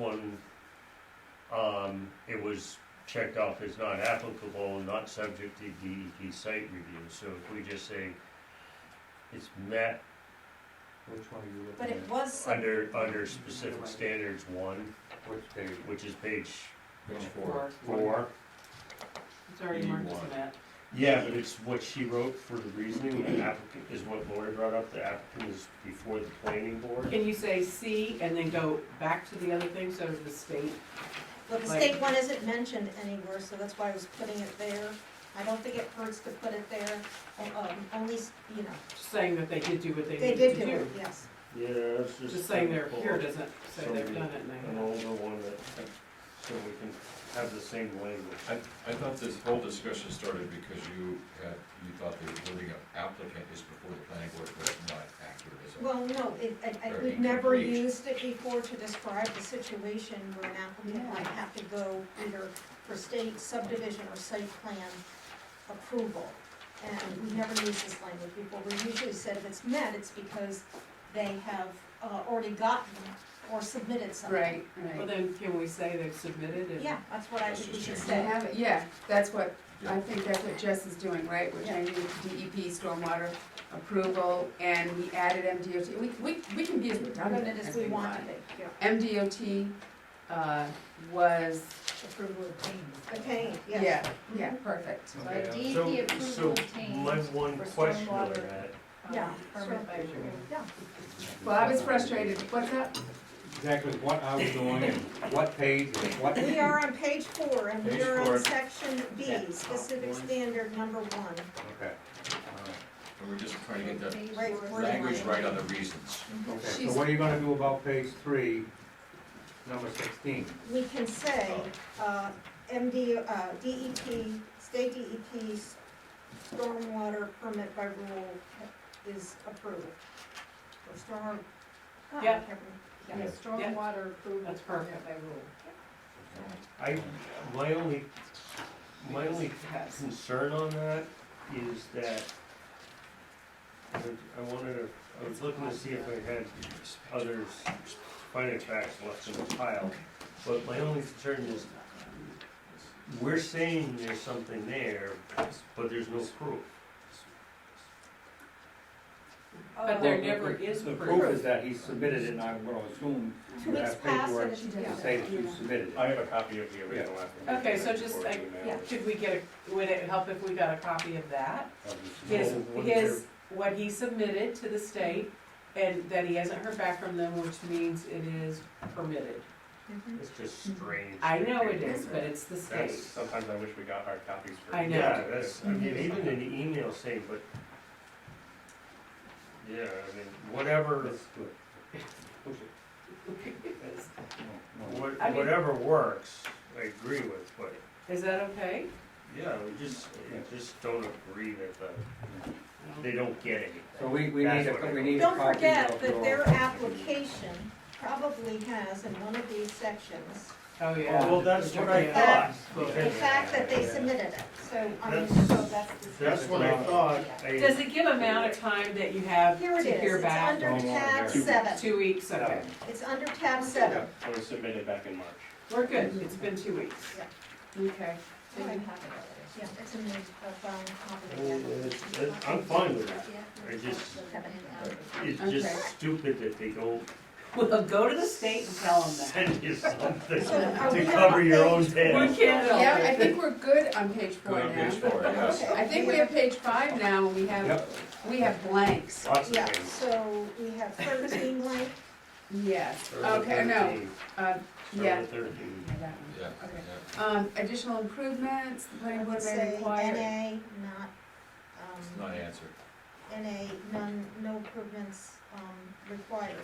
one, um, it was checked off as not applicable, not subject to DEP site review, so if we just say it's met Which one are you But looking it at? was, sub- under, under specific standards one, Which page? which is page Page Four. four. It's already You marked as want- that. Yeah, but it's what she wrote for the reasoning, the applicant, is what Lori brought up, the applicant is before the planning board. Can you say C and then go back to the other thing, so the state? well, the state one isn't mentioned anywhere, so that's why I was putting it there. I don't think it hurts to put it there, um, only, s- you know, saying that they did do what they they needed did to do it, do. yes. Yeah, it's just. Just saying they're pull here up doesn't say they've done it, An and older one that, so we can have the same language. I, I thought this whole discussion started because you had, you thought the wording of applicant is before the planning board was not accurate as well. Well, no, it, I, I, Or we've never incomplete. used it before to describe the situation where an applicant might have to go either for state subdivision or site plan approval. And we never used this language before. We usually said if it's met, it's because they have, uh, already gotten or submitted something. Right, they, well, right. then can we say they've submitted and? Yeah, that's what I Let's think we just change should They say. have, it. yeah, that's what, Yeah. I think that's what Jess is doing, right? We're changing DEP E stormwater approval, and we added MDOT, we, we, we can be as redundant Limited as as we want. to be, yeah. MDOT, uh, was, Approval obtained. Obtained, yes. yeah, yeah, perfect. Okay, uh, DEP So, approval so obtained my one for question on stormwater. that, Um, Yeah, permit by sure. rule. Yeah, Well, I was frustrated, what's that? Exactly what I was doing and what page and what. we are on page four, and we Page are on four. section B, specific One. standard number one. Okay, And we're just trying to get Page Right, four. the Word language line. right on the reasons. all right. Okay, She's- so what are you gonna do about page three, number sixteen? We can say, uh, MD, uh, DEP, state DEP's stormwater permit by rule is approved. Or storm. God, I Yeah. can't remember. Yeah, stormwater approval That's perfect. permit by rule. I, my only, my Because only it has. concern on that is that I- I wanted to, I was looking to see if I had others, finding facts left in the pile. But my only concern is, we're saying there's something there, but there's no proof. But there never is The proof proof. is that he submitted it, and I'm gonna assume Two you weeks have passed, paperwork and it's, to yeah. say that you submitted it. I have a copy of the original application. Okay, so just, like, yeah. Could we get, a? would it help if we got a copy of that? His, Yes. his, what he submitted to the state, and that he hasn't heard back from them, which means it is permitted. Mhm. It's just strange. I know it is, but it's the state. That's, sometimes I wish we got hard copies for. I know. Yeah, that's, I mean, even an email saying, but, yeah, I mean, whatever, Let's do it. Push it. No, no. what- I mean- whatever works, I agree with, but, Is that okay? yeah, we just, I just don't agree that the, they don't get anything. So we, we need That's what a, I- we need a Don't copy of your. forget that their application probably has in one of these sections, Oh, yeah. Well, that's what I Yeah. thought. the fact that they Yeah. submitted it, so, I mean, That's- so that's the. That's what I thought, Does I, it give amount of time that you have Here to it is, hear it's back? under Don't worry, tab Eric. seven, Two weeks, okay. it's under tab seven. It was submitted back in March. We're good, it's been two weeks. Okay. So you have it already. Yeah, it's in the, uh, brown copy. I- Oh, I'm fine with that, I just, Seven. it's Okay. just stupid that they don't Well, go to the state and tell them that. send you something So are we to on cover your own page tail. We can't Yeah, I help it. think we're good on page four Good on page now. four, yes. Okay. I think we have page five now, and we have, Yep. we have blanks. Lots of Yeah, things. so we have thirteen blank, Yes, Start with okay, no, 13. uh, Start yeah. with 13. that one. Yeah, Okay. yeah. Um, additional improvements, the I planning would board may say require. NA, not, It's um, not answered. NA, none, no improvements, um, required.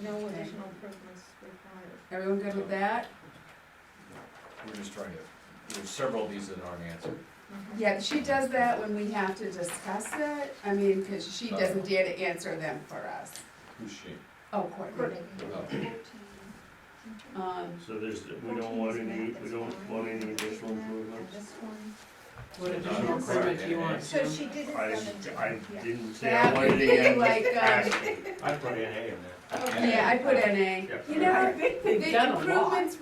No additional improvements required. Everyone good with that? We're just trying to, there's several of these that aren't answered. Mhm. Yeah, she does that when we have to discuss it, I mean, cause she doesn't dare to answer them for us. Who's she? Oh, Courtney. Courtney. Oh, Um, So there's, we don't want any, we don't want any additional improvements? This one, What additional permit do you want? So Jim? she didn't. I, I Yeah. didn't say I That would wanted be to end like, um, asking. I put in A in there. yeah, I put in a, you know, I think the they've done a lot. improvements